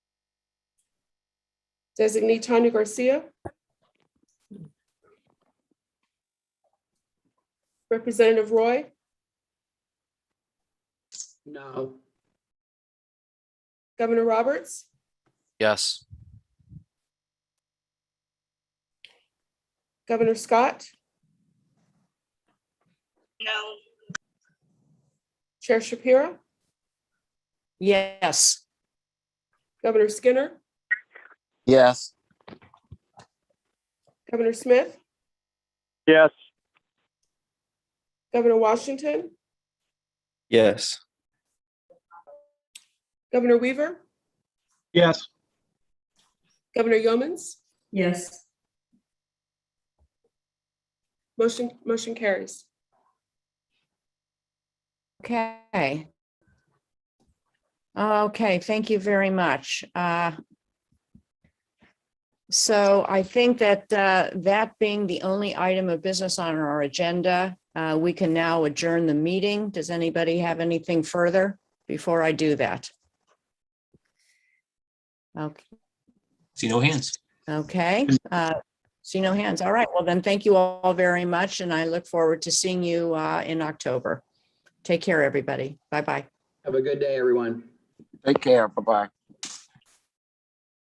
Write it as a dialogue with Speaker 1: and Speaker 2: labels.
Speaker 1: Designee Tanya Garcia. Representative Roy,
Speaker 2: No.
Speaker 1: Governor Roberts,
Speaker 3: Yes.
Speaker 1: Governor Scott,
Speaker 4: No.
Speaker 1: Chair Shapiro,
Speaker 2: Yes.
Speaker 1: Governor Skinner,
Speaker 3: Yes.
Speaker 1: Governor Smith,
Speaker 5: yes,
Speaker 1: Governor Washington,
Speaker 3: Yes.
Speaker 1: Governor Weaver,
Speaker 5: yes,
Speaker 1: Governor Yeomans.
Speaker 4: Yes.
Speaker 1: Motion, motion carries.
Speaker 2: Okay. Okay, thank you very much. Uh, So I think that uh, that being the only item of business on our agenda, uh, we can now adjourn the meeting. Does anybody have anything further before I do that? Okay.
Speaker 6: See no hands.
Speaker 2: Okay, uh, see no hands. All right, well then, thank you all very much, and I look forward to seeing you uh, in October. Take care, everybody. Bye-bye.
Speaker 7: Have a good day, everyone.
Speaker 3: Take care. Bye-bye.